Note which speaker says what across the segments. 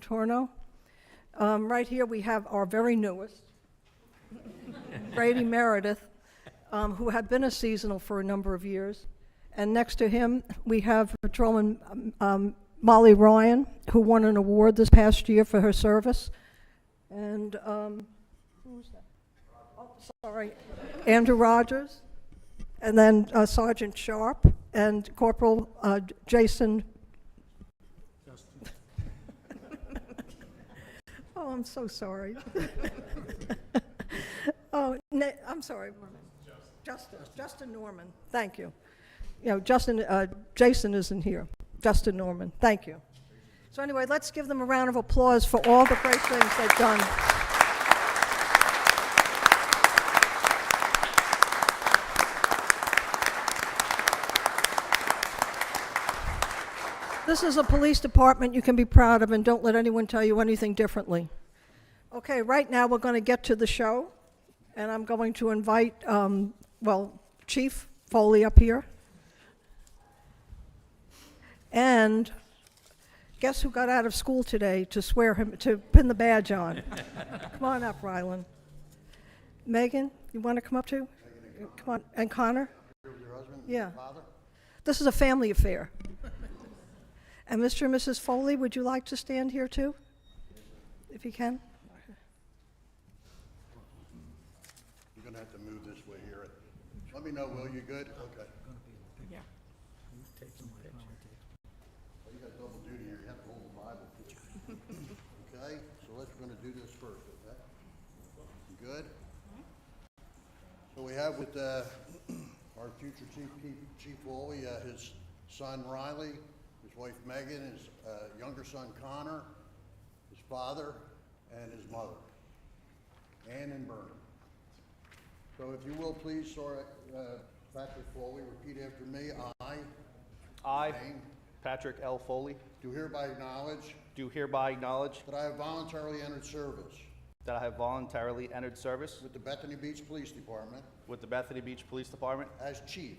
Speaker 1: Contorno. Um, Right here, we have our very newest, Brady Meredith, um, who had been a seasonal for a number of years. And next to him, we have Patrolman um, um, Molly Ryan, who won an award this past year for her service. And, um, who was that? Oh, sorry, Andrew Rogers, and then uh, Sergeant Sharp, and Corporal uh, Jason Oh, I'm so sorry. Oh, na- I'm sorry. Justin, Justin Norman, thank you. You know, Justin, uh, Jason isn't here. Justin Norman, thank you. So anyway, let's give them a round of applause for all the great things they've done. This is a police department you can be proud of, and don't let anyone tell you anything differently. Okay, right now, we're going to get to the show, and I'm going to invite, um, well, Chief Foley up here. And guess who got out of school today to swear him, to pin the badge on? Come on up, Rylan. Megan, you want to come up too? Come on, and Connor? Yeah. This is a family affair. And Mr. and Mrs. Foley, would you like to stand here too? If you can?
Speaker 2: You're gonna have to move this way here. Let me know, Will, you good? Okay. Well, you got double duty here, you have to hold the Bible. Okay, so let's, we're gonna do this first, okay? You good? So we have with, uh, our future chief, Chief- Chief Woolley, uh, his son Riley, his wife Megan, his, uh, younger son Connor, his father, and his mother, Ann and Vernon. So if you will, please, Sir uh, Patrick Foley, repeat after me. I
Speaker 3: I,
Speaker 2: Name?
Speaker 3: Patrick L. Foley,
Speaker 2: do hereby acknowledge
Speaker 3: do hereby acknowledge
Speaker 2: that I have voluntarily entered service
Speaker 3: that I have voluntarily entered service
Speaker 2: with the Bethany Beach Police Department
Speaker 3: with the Bethany Beach Police Department
Speaker 2: as chief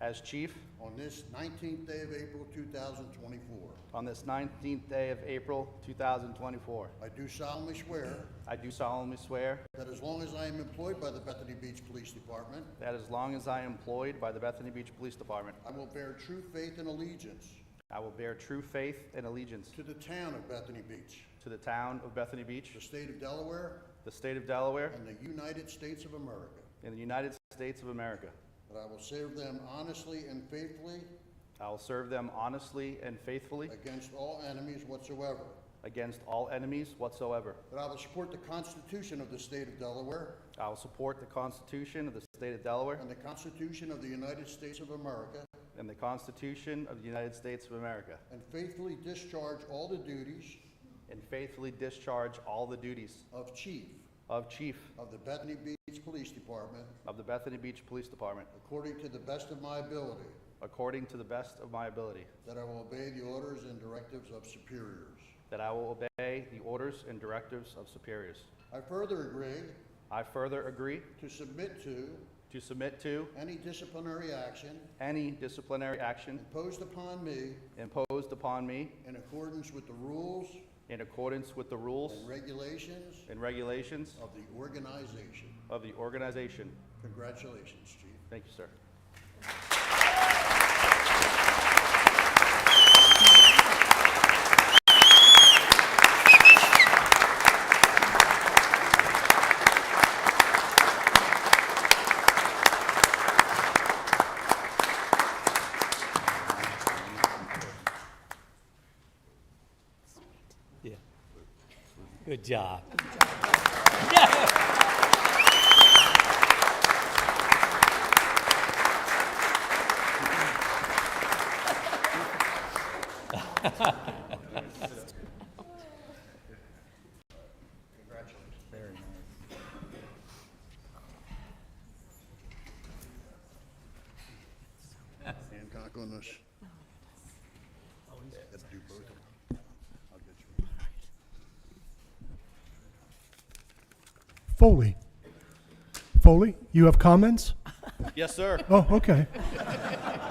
Speaker 3: as chief
Speaker 2: on this 19th day of April 2024.
Speaker 3: on this 19th day of April 2024.
Speaker 2: I do solemnly swear
Speaker 3: I do solemnly swear
Speaker 2: that as long as I am employed by the Bethany Beach Police Department,
Speaker 3: that as long as I am employed by the Bethany Beach Police Department,
Speaker 2: I will bear true faith and allegiance
Speaker 3: I will bear true faith and allegiance
Speaker 2: to the town of Bethany Beach,
Speaker 3: to the town of Bethany Beach,
Speaker 2: the state of Delaware,
Speaker 3: the state of Delaware,
Speaker 2: and the United States of America,
Speaker 3: and the United States of America.
Speaker 2: that I will serve them honestly and faithfully
Speaker 3: I will serve them honestly and faithfully
Speaker 2: Against all enemies whatsoever.
Speaker 3: against all enemies whatsoever.
Speaker 2: That I will support the Constitution of the State of Delaware
Speaker 3: I will support the Constitution of the state of Delaware
Speaker 2: and the Constitution of the United States of America,
Speaker 3: And the Constitution of the United States of America.
Speaker 2: and faithfully discharge all the duties
Speaker 3: And faithfully discharge all the duties
Speaker 2: of Chief
Speaker 3: of Chief
Speaker 2: of the Bethany Beach Police Department
Speaker 3: of the Bethany Beach Police Department
Speaker 2: according to the best of my ability,
Speaker 3: according to the best of my ability.
Speaker 2: that I will obey the orders and directives of superiors.
Speaker 3: That I will obey the orders and directives of superiors.
Speaker 2: I further agree
Speaker 3: I further agree
Speaker 2: to submit to
Speaker 3: to submit to
Speaker 2: any disciplinary action
Speaker 3: any disciplinary action
Speaker 2: imposed upon me
Speaker 3: imposed upon me
Speaker 2: in accordance with the rules
Speaker 3: in accordance with the rules
Speaker 2: and regulations
Speaker 3: and regulations
Speaker 2: of the organization.
Speaker 3: of the organization.
Speaker 2: Congratulations, Chief.
Speaker 3: Thank you, sir.
Speaker 4: Yeah. Good job.
Speaker 2: Hancock on this. Have to do both of them. I'll get you.
Speaker 5: Foley. Foley, you have comments?
Speaker 3: Yes, sir.
Speaker 5: Oh, okay.